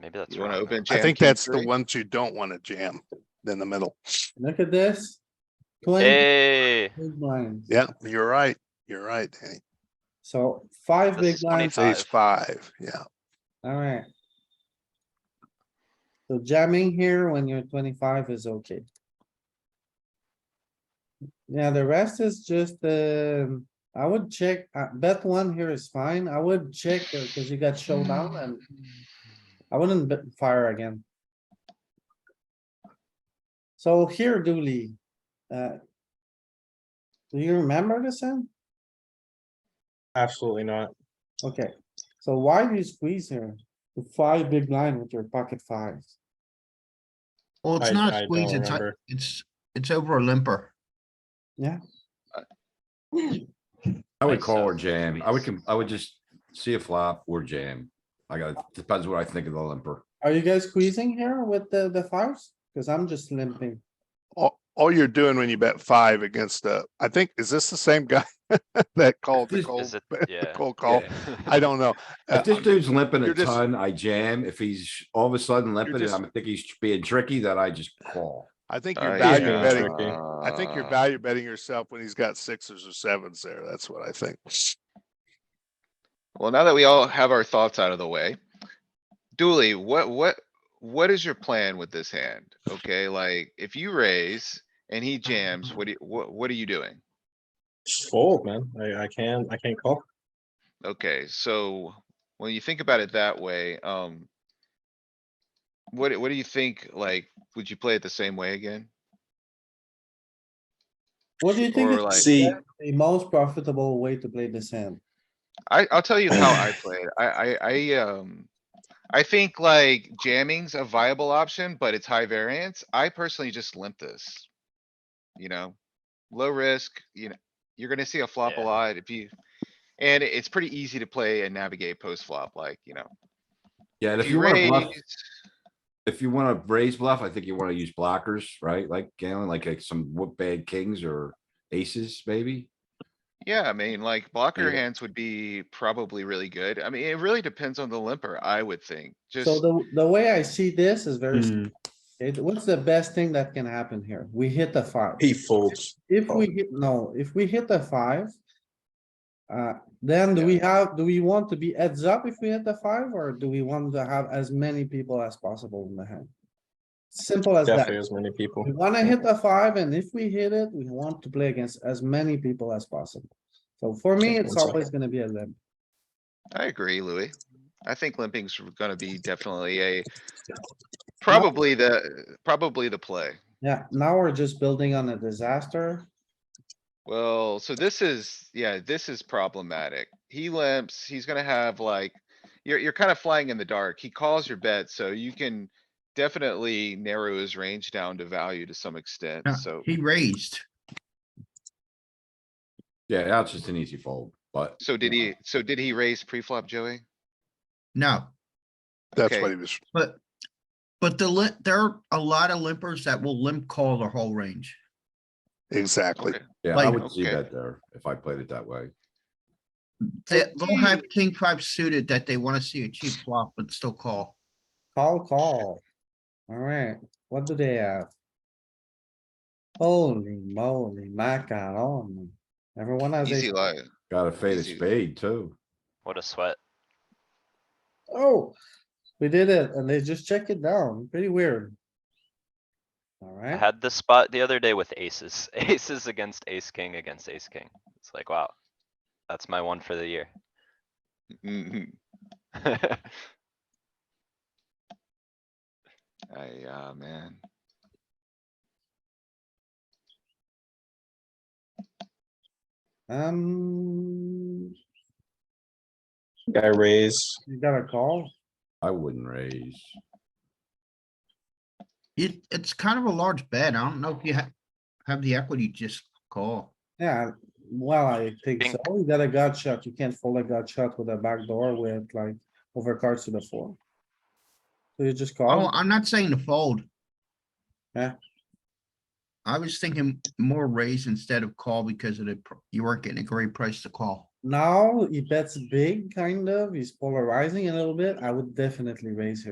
Maybe that's You wanna wrong. open I jam think king that's the three? ones you don't wanna jam in the middle. Look at this. Play Hey, big blinds. Yeah, you're right. You're right, Danny. So five This big is blinds, It's ace Five. five, yeah. alright. So jamming here when you're twenty-five is okay. Yeah, the rest is just, um, I would check, uh, bet one here is fine. I would check because you got showdown and I wouldn't bet fire again. So here Dooley, uh. Do you remember this hand? Absolutely not. Okay, so why do you squeeze here? The five big line with your pocket fives. Well, it's I- not I a don't squeeze, it's, a- remember. it's, it's over a limper. I would Makes call or sense. jam. I Squeeze. would, com- I would just see a flop or jam. I got, depends what I think of the limper. Are you guys squeezing here with the, the fives? Cause I'm just limping. All, all you're doing when you bet five against a, I think, is this the same guy that called the Is- cold, is it- the yeah. cold call? I don't know. Uh, If this dude's limping a you're just- ton, I jam. If he's all of a sudden limping and just- I think he's being tricky, then I just call. I think Uh, you're yeah. value Yeah. betting, tricky. I think you're Uh, value betting yourself when he's got sixes or sevens there. That's what I think. Well, now that we all have our thoughts out of the way, Dooley, what, what, what is your plan with this hand? Okay, like, if you raise and he jams, what do, you- what, what are you doing? Just fold, man. I, I can, I can't call. Okay, so when you think about it that way, um. What, what do you think? Like, would you play it the same way again? What do you think Or is like- See, the most profitable way to play this hand? I, I'll tell you how I play it. I, I, I, um. I think like jamming's a viable option, but it's high variance. I personally just limp this. You know, low risk, you know, you're gonna see a flop a Yeah. lot if you. And it's pretty easy to play and navigate post flop, like, you know. E Yeah, and if you wanna bluff, raise, if you wanna raise bluff, I think you wanna use blockers, right? Like Galen, like like some what bad kings or aces, maybe? Yeah, I mean, like blocker Yeah. hands would be probably really good. I mean, it really depends on the limper, I would think. Just, So the, the way I see this is very, Hmm, it, what's the best thing that can happen here? We hit the five. he folds. Oh. If we hit, no, if we hit the five. Uh, then do we have, do we want to be heads up if we hit the five or do we want to have as many people as possible in the hand? Simple as that. Definitely as many people. We wanna hit the five, and if we hit it, we want to play against as many people as possible. So for me, Check it's one always gonna be a limp. I agree, Louis. I think limping's gonna be definitely a, probably the, probably the play. Yeah, now we're just building on a disaster. Well, so this is, yeah, this is problematic. He limps, he's gonna have like, you're, you're kind of flying in the dark. He calls your bet, so you can definitely narrow his range down to value to some extent, Yeah, so. He raised. Yeah, that's just an easy fold, but So did he, so did he raise pre-flop, Joey? No, That's Okay. what he was. but, but the limp, there are a lot of limpers that will limp call the whole range. Exactly. Okay. yeah, I Like- would see Okay. that there if I played it that way. They, they'll have king five suited that they wanna see a cheap flop but still call. Call, call. Alright, what do they have? Holy moly, macaroni. Everyone has Easy a, life. Got a faded see. spade too. What a sweat. oh, we did it, and they just check it down. Pretty weird. I Alright, had this spot the other day with aces, aces against ace king against ace king. It's like, wow. That's my one for the year. Mhm. I, uh, man. um, Guy raise. you got a call? I wouldn't raise. It, it's kind of a large bet. I don't know if you have, have the equity, just call. Yeah, well, I think Think- so. You got a gut shot. You can't fold a gut shot with a back door with like overcards to the floor. So you just Oh, call. I'm not saying to fold. Yeah. I was thinking more raise instead of call because of the, pr- you weren't getting a great price to call. Now he bets big, kind of. He's polarizing a little bit. I would definitely raise here.